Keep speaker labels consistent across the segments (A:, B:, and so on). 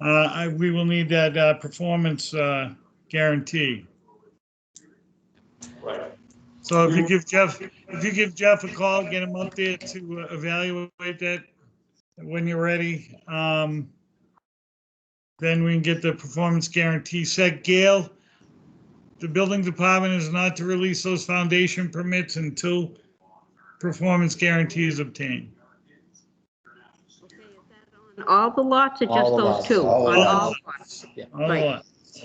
A: Uh, I, we will need that, uh, performance, uh, guarantee.
B: Right.
A: So if you give Jeff, if you give Jeff a call, get him up there to uh, evaluate that when you're ready. Um, then we can get the performance guarantee set. Gail, the building department is not to release those foundation permits until performance guarantee is obtained.
C: On All the lots or just
B: All the
C: those
B: lots,
C: two?
B: all the
C: On all
A: lots.
C: lots.
A: All
C: Right.
A: right.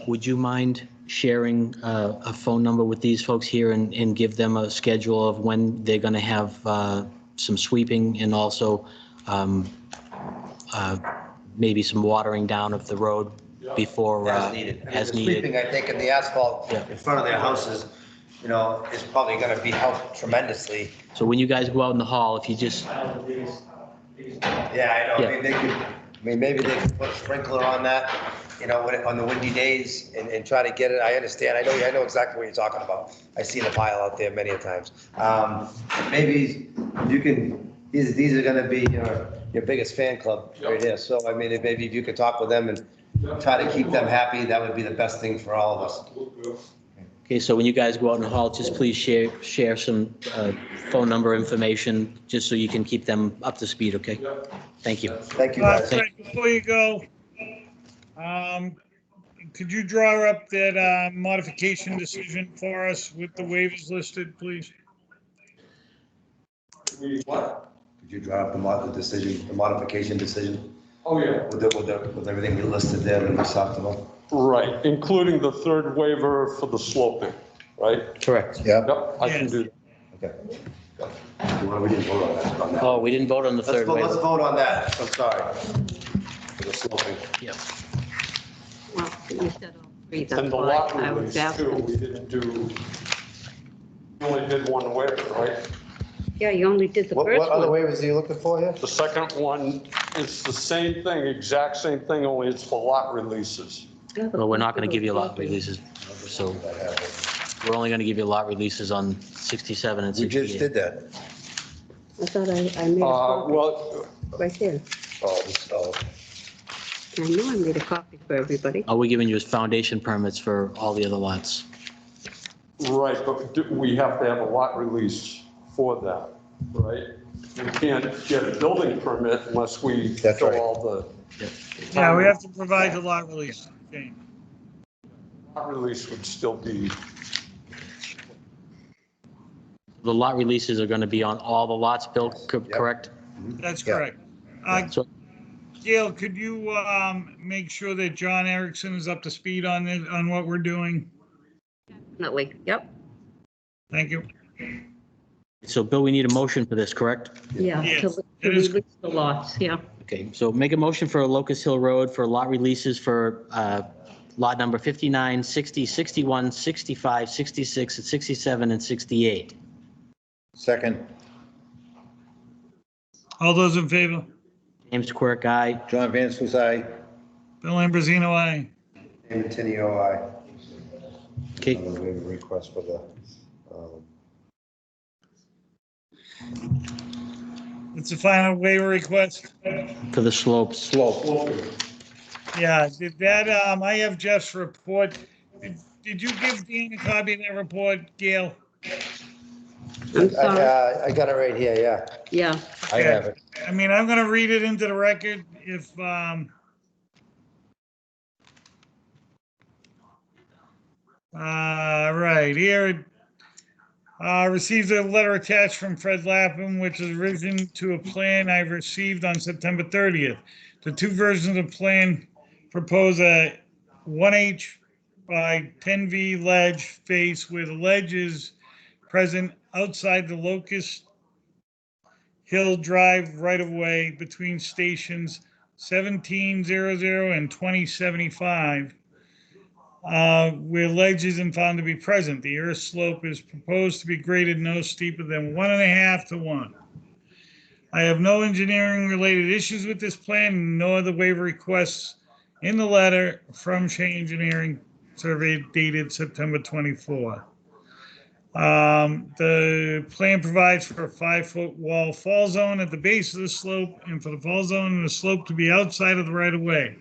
D: Would you mind sharing uh, a phone number with these folks here and, and give them a schedule of when they're going to have uh, some sweeping and also um, uh, maybe some watering down of the road before,
E: As
D: uh,
E: needed. I mean,
D: as
E: the sweeping,
D: needed?
E: I think, in the asphalt
D: Yeah.
E: in front of their houses, you know, is probably gonna be helped tremendously.
D: So when you guys go out in the hall, if you just,
E: Yeah, I know,
D: Yeah.
E: I mean, they could, I mean, maybe they could put a sprinkler on that, you know, when it- on the windy days and, and try to get it, I understand, I know, I know exactly what you're talking about. I see the pile out there many a times. Um, maybe you can, these, these are gonna be your, your biggest fan club right here, so I mean, if- maybe if you could talk with them and try to keep them happy, that would be the best thing for all of us.
D: okay, so when you guys go out in the hall, just please share, share some uh, phone number information, just so you can keep them up to speed, okay? Thank you.
E: Thank you,
A: Uh,
E: guys.
A: Fred, before you go, um, could you draw up that, uh, modification decision for us with the waivers listed, please?
B: What?
E: Could you draw up the mod, the decision, the modification decision
B: Oh, yeah.
E: with the, with the, with everything we listed there in the supplemental?
B: Right, including the third waiver for the sloping, right?
D: Correct.
E: Yeah.
B: Yep, I can do that.
E: Okay. Well, we didn't vote on that, on that.
D: Oh, we didn't vote on the
E: Let's
D: third
E: vote, let's
D: waiver.
E: vote on that, I'm sorry. For the sloping.
D: Yeah.
C: Well, you said all three, that's
B: And the
C: why
B: lot
C: I was
B: release too,
C: asking.
B: we didn't do, we only did one waiver, right?
C: Yeah, you only did the
E: What, what
C: first
E: other
C: one.
E: waivers are you looking for here?
B: The second one is the same thing, exact same thing, only it's for lot releases.
D: Well, we're not going to give you lot releases, so we're only going to give you lot releases on 67 and 68.
E: that.
C: I thought I, I made a
B: Uh,
C: copy
B: well,
C: right there.
E: Oh, this- oh,
C: I know I made a copy for everybody.
D: All we're giving you is foundation permits for all the other lots.
B: right, but do- we have to have a lot release for that, right? We can't get a building permit unless we
E: That's
B: fill
E: right.
B: all
A: Yeah, we have to provide the lot release. Okay.
B: the, lot release would still be,
D: The lot releases are going to be on all the lots built, co-
E: Yep.
D: correct?
A: That's
E: Yeah.
A: correct. Uh,
D: So
A: Gail, could you, um, make sure that John Erickson is up to speed on it, on what we're doing?
C: Definitely, yep.
A: Thank you.
D: So Bill, we need a motion for this, correct?
C: Yeah,
A: Yes,
C: to to
A: it is-
C: release the lots, yeah.
D: Okay, so make a motion for Locust Hill Road for lot releases for uh, lot number 59, 60, 61, 65, 66, and 67, and 68.
F: Second,
A: All those in favor?
D: James Quirk, aye.
F: John Van Suss, aye.
A: Bill Ambrosino, aye.
E: David Tenio, aye.
D: Okay,
E: On the waiver request for the, um,
A: It's the final waiver request.
D: for the slopes.
F: Slope.
A: Yeah, did that, um, I have Jeff's report. Did did you give Dean a copy of that report, Gail?
C: I'm
E: I,
C: sorry,
E: uh, I got it right here, yeah.
C: yeah.
F: I have it.
A: I mean, I'm gonna read it into the record if, um, uh, right, here, uh, received a letter attached from Fred Lapham, which is written to a plan I received on September thirtieth. The two versions of plan propose a one H by ten V ledge face where the ledge is present outside the locust Hill Drive right of way between stations seventeen zero zero and twenty seventy-five. Uh, where ledge isn't found to be present. The earth slope is proposed to be graded no steeper than one and a half to one. I have no engineering related issues with this plan, no other waiver requests in the letter from Shea Engineering survey dated September twenty-four. Um, the plan provides for a five-foot wall fall zone at the base of the slope and for the fall zone and the slope to be outside of the right-of-way.